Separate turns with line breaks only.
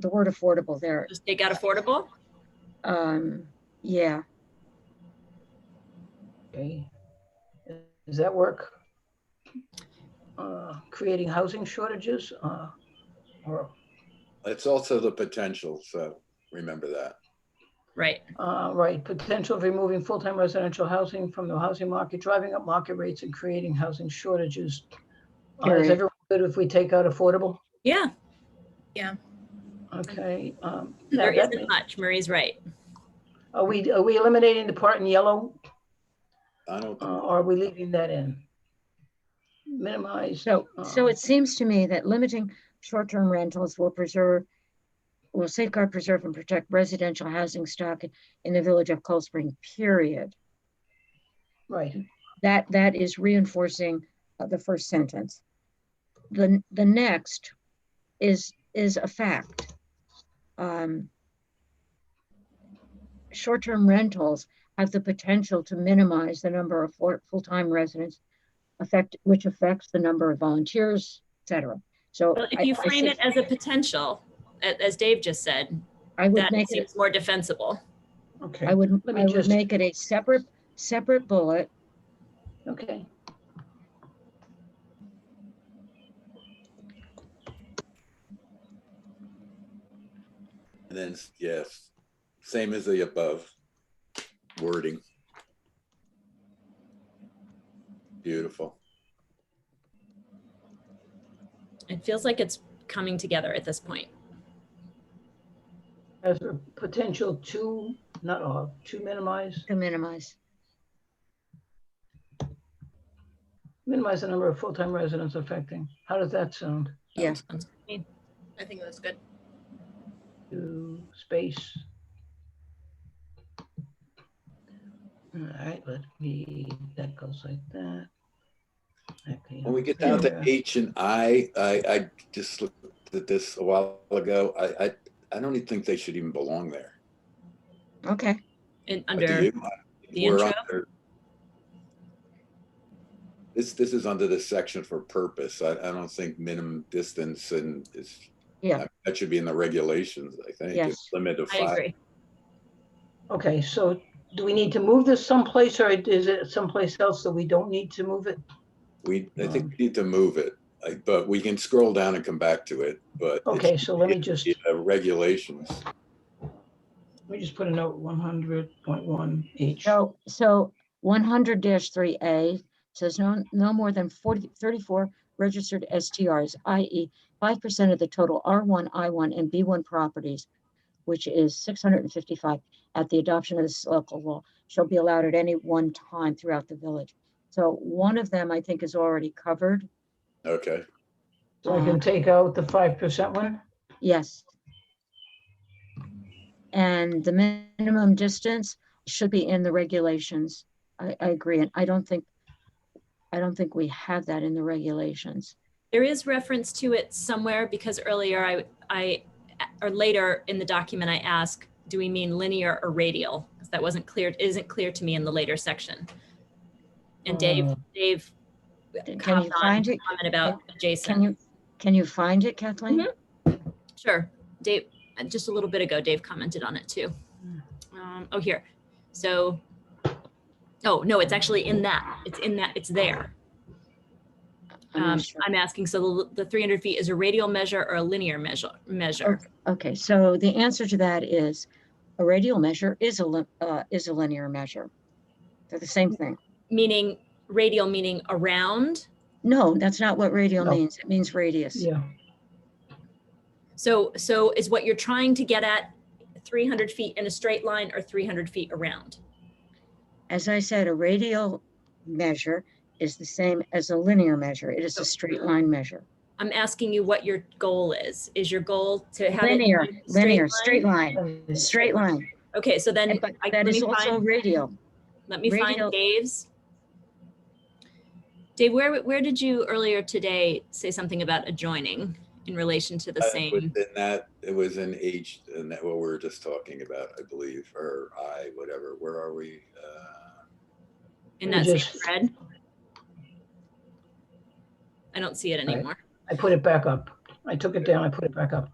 the word affordable there.
Just take out affordable?
Um, yeah,
Okay. Does that work? Uh, Creating housing shortages, uh, or,
It's also the potential, so remember that.
Right.
uh, right, potential of removing full-time residential housing from the housing market, driving up market rates and creating housing shortages. Uh, Is
Period.
everyone good if we take out affordable?
Yeah,
Okay. um, that-
there
that
isn't
may-
much. Marie's right.
Are we, are we eliminating the part in yellow,
I don't,
uh, or are we leaving that in? Minimize.
so, so
uh,
it seems to me that limiting short-term rentals will preserve, will safeguard, preserve, and protect residential housing stock in the village of Cold Spring, period.
Right.
That, that is reinforcing uh, the first sentence. The, the next is, is a fact. Um, Short-term rentals have the potential to minimize the number of full- full-time residents affect, which affects the number of volunteers, et cetera. So.
Well, if
I-
you
I
frame
see-
it as a potential, a- as Dave just said,
I would
that
make it,
seems more defensible.
I
Okay.
would,
Let me
I would
just-
make it a separate, separate bullet
Okay.
and then, yes, same as the above wording. Beautiful.
It feels like it's coming together at this point.
As a potential to, not all, to minimize,
to minimize.
minimize the number of full-time residents affecting. How does that sound?
Yeah.
Sounds good to me.
I think that's good.
To space. All right, let me, that goes like that. Okay.
When we get down to
Yeah.
H and I, I, I just looked at this a while ago. I, I, I don't even think they should even belong there.
Okay,
And
But do
under,
you?
the
We're
intro?
under- This, this is under this section for purpose. I, I don't think minimum distance and is.
Yeah.
That should be in the regulations, I think.
Yes.
It's Limit of
I
five.
agree.
Okay, so do we need to move this someplace or is it someplace else that we don't need to move it?
We, I think
Um,
we need to move it, I- but we can scroll down and come back to it, but.
Okay, so let me
it's-
just,
it's, uh, Regulations.
let me just put a note, one hundred point one H.
so, so one hundred three A says no, no more than 40 34 registered STRs, i.e. E five percent of the total R one, I one, and B one properties, which is six hundred and fifty-five at the adoption of this local law, shall be allowed at any one time throughout the village. So one of them, I think, is already covered.
Okay,
So I can take out the five percent one?
Yes. And the minimum distance should be in the regulations. I, I agree, and I don't think, I don't think we have that in the regulations.
There is reference to it somewhere because earlier I, I, or later in the document, I ask, do we mean linear or radial? Because that wasn't clear, it isn't clear to me in the later section. And Dave, Dave
Can you
comment on,
find it?
comment about
Can
adjacent.
you, can you find it, Kathleen?
Mm-hmm. Sure. Dave, uh, just a little bit ago, Dave commented on it too. Um, oh, here. So, oh, no, it's actually in that. It's in that, it's there.
I'm not
Um,
sure.
I'm asking, so the, the 300 feet is a radial measure or a linear measure, measure?
Okay, so the answer to that is a radial measure is a, lin- uh, is a linear measure. They're the same thing.
Meaning radial, meaning around.
No, that's not what radial
No.
means. It means radius.
Yeah,
So, so is what you're trying to get at 300 feet in a straight line or 300 feet around?
as I said, a radial measure is the same as a linear measure. It is a straight line measure.
I'm asking you what your goal is. Is your goal to have it
Linear,
in a
linear, straight line,
Okay.
straight line.
Okay, so then
But
I- let
that
me
is also
find-
radial.
Let me
Radio-
find Dave's. Dave, where, where did you earlier today say something about adjoining in relation to the
Uh,
same?
within that, it was in H, and that what we were just talking about, I believe, or I, whatever, where are we? Uh,
In that same
Just-
thread? I don't see it anymore.
I put it back up. I took it down, I put it back up.